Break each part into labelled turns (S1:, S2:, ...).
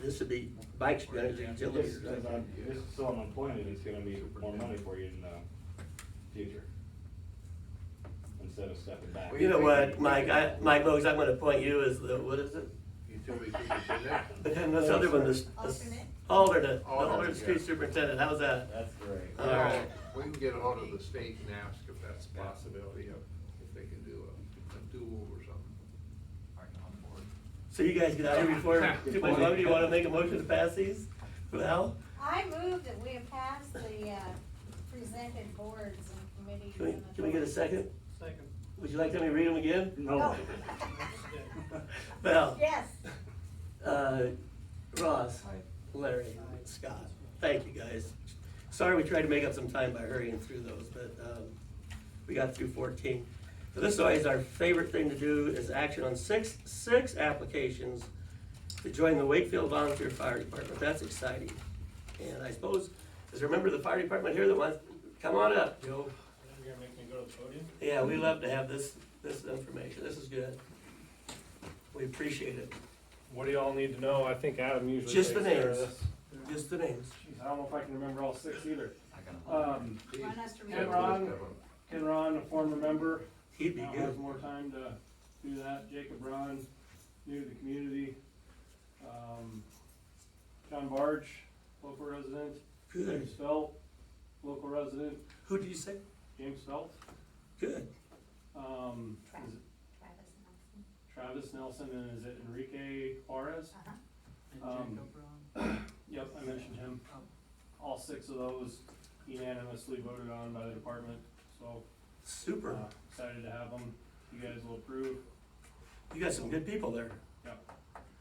S1: this would be Mike's budget until
S2: This,
S1: this.
S2: this, uh, this is still unemployment, it's gonna be more money for you in the future. Instead of stepping back.
S1: You know what, Mike, I, Mike Bogues, I'm gonna appoint you as the, what is it?
S3: Utility superintendent?
S1: But then this other one, this.
S4: Alternate?
S1: Alternate, the
S3: Alternate,
S1: alternate street
S3: yeah.
S1: superintendent, how's that?
S2: That's great.
S1: All right.
S3: We can get ahold of the state and ask if that's a possibility, of if they can do a, a do-over or something.
S1: So you guys get out here before, too much longer, you wanna make a motion to pass these? Well,
S4: I move that we pass the uh, presented boards and committees.
S1: can we,
S4: and
S1: can we get a second?
S5: Second.
S1: Would you like me to read them again?
S2: No.
S6: Oh.
S1: Val?
S4: Oh. Yes.
S1: Uh, Ross? Larry? Scott? Thank you, guys. Sorry we tried to make up some time by hurrying through those, but, um, we got through fourteen. So this is always our favorite thing to do is action on six, six applications to join the Wakefield Volunteer Fire Department. That's exciting. And I suppose, is there a member of the fire department here that wants, come on up, Joe.
S5: You're gonna make me go to the podium?
S1: Yeah, we love to have this, this information. This is good. We appreciate it.
S6: What do y'all need to know? I think Adam usually
S1: Just the
S6: takes care of
S1: names.
S6: this.
S1: Just the names.
S6: Jeez, I don't know if I can remember all six either. Um,
S4: Want us to read?
S3: Yeah,
S4: it?
S6: Ron.
S3: list of 'em.
S6: Ken Ron, a former member,
S1: He'd be
S6: now
S1: good.
S6: has more time to do that. Jacob Ron, new to the community. Um, John Barge, local resident.
S1: Good.
S6: James Felt, local resident.
S1: Who did you say?
S6: James Felt.
S1: Good.
S6: Um,
S4: Travis.
S6: is it
S4: Travis
S6: Travis
S4: Nelson.
S6: Nelson and is it Enrique Juarez?
S4: Uh-huh.
S6: Um, Yep, I mentioned him. All six of those unanimously voted on by the department, so uh,
S1: Super.
S6: excited to have them. You guys will approve.
S1: You got some good people there.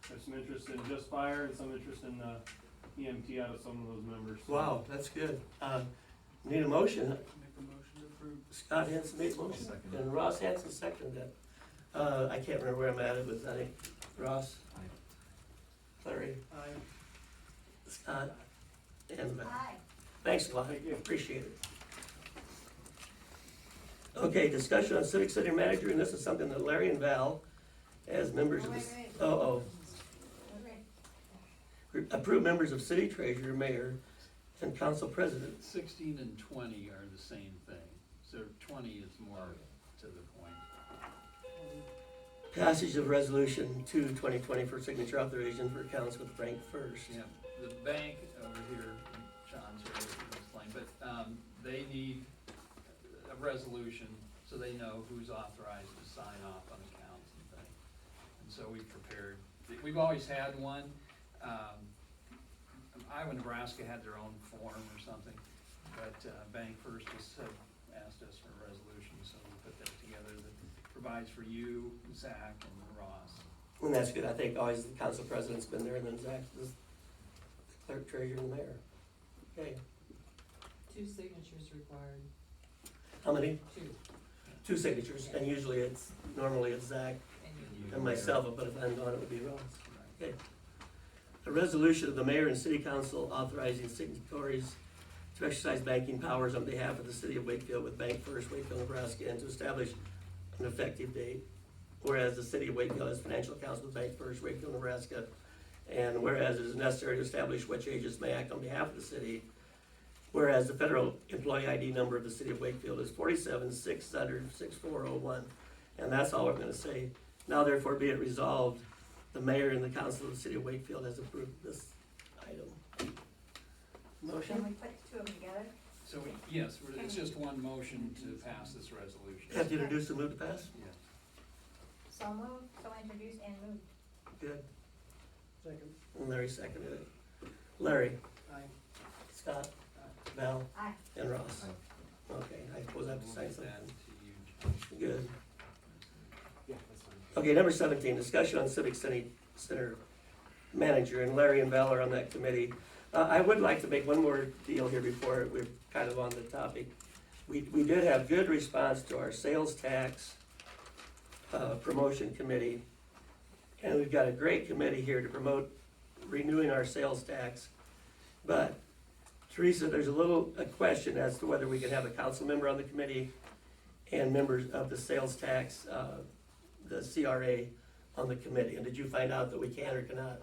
S6: There's some interest in just fire and some interest in uh, EMT out of some of those members. so-
S1: Wow, that's good. Um, Need a motion.
S5: Make a motion to approve.
S1: Scott Hanson made a motion and Ross Hanson seconded it. Uh, I can't remember where I'm at. It was, I think, Ross. Larry,
S5: Aye.
S1: Scott, and Matt.
S4: Hi.
S1: Thanks a lot,
S6: Thank you.
S1: appreciate it. Okay, discussion on civic center manager, and this is something that Larry and Val, as members of
S4: Wait,
S1: the,
S4: wait.
S1: oh,
S4: We're ready.
S1: oh, approved members of city treasurer, mayor, and council president.
S7: Sixteen and twenty are the same thing, so twenty is more to the point.
S1: Passage of resolution two twenty twenty for signature authorization for accounts with Frank First.
S7: Yeah, the bank over here, John's here to explain, but, um, they need a resolution so they know who's authorized to sign off on accounts and things. And so we prepared, we've always had one, um, Iowa, Nebraska had their own form or something, but, uh, Bank First has said, asked us for a resolution, so we put that together that provides for you, Zach, and Ross.
S1: And that's good, I think always the council president's been there, and then Zach, the clerk treasurer and the mayor. Okay,
S8: Two signatures required,
S1: how many?
S8: two,
S1: Two signatures, and usually it's, normally it's Zach
S8: and you.
S7: you,
S1: Uh, And myself, but if I'm gone, it would be Ross.
S7: Right.
S1: Okay. A resolution of the mayor and city council authorizing signatories to exercise banking powers on behalf of the city of Wakefield with Bank First Wakefield, Nebraska, and to establish an effective date. Whereas the city of Wakefield has financial accounts with Bank First Wakefield, Nebraska, and whereas it is necessary to establish which agents may act on behalf of the city. Whereas the federal employee ID number of the city of Wakefield is forty-seven six hundred six four oh one. And that's all we're gonna say. Now therefore be it resolved, the mayor and the council of the city of Wakefield has approved this item.
S4: Can
S1: Motion?
S4: we put the two of them together?
S7: So, we- yes, we're- it's just one motion to pass this resolution.
S1: Have to introduce and move to pass?
S7: Yeah.
S4: So moved, so introduced and moved.
S1: Good.
S5: Second.
S1: And Larry seconded it. Larry,
S5: Aye.
S1: Scott, Val,
S4: Aye.
S1: and Ross. Okay, I suppose I have to
S7: We'll
S1: say
S7: get that
S1: something.
S7: to you,
S1: Good.
S2: Yeah, that's fine.
S1: Okay, number seventeen, discussion on civic city center manager, and Larry and Val are on that committee. Uh, I would like to make one more deal here before we're kind of on the topic. We, we did have good response to our sales tax, uh, promotion committee. And we've got a great committee here to promote renewing our sales tax. But Teresa, there's a little, a question as to whether we can have a council member on the committee and members of the sales tax, uh, the CRA on the committee, and did you find out that we can or cannot?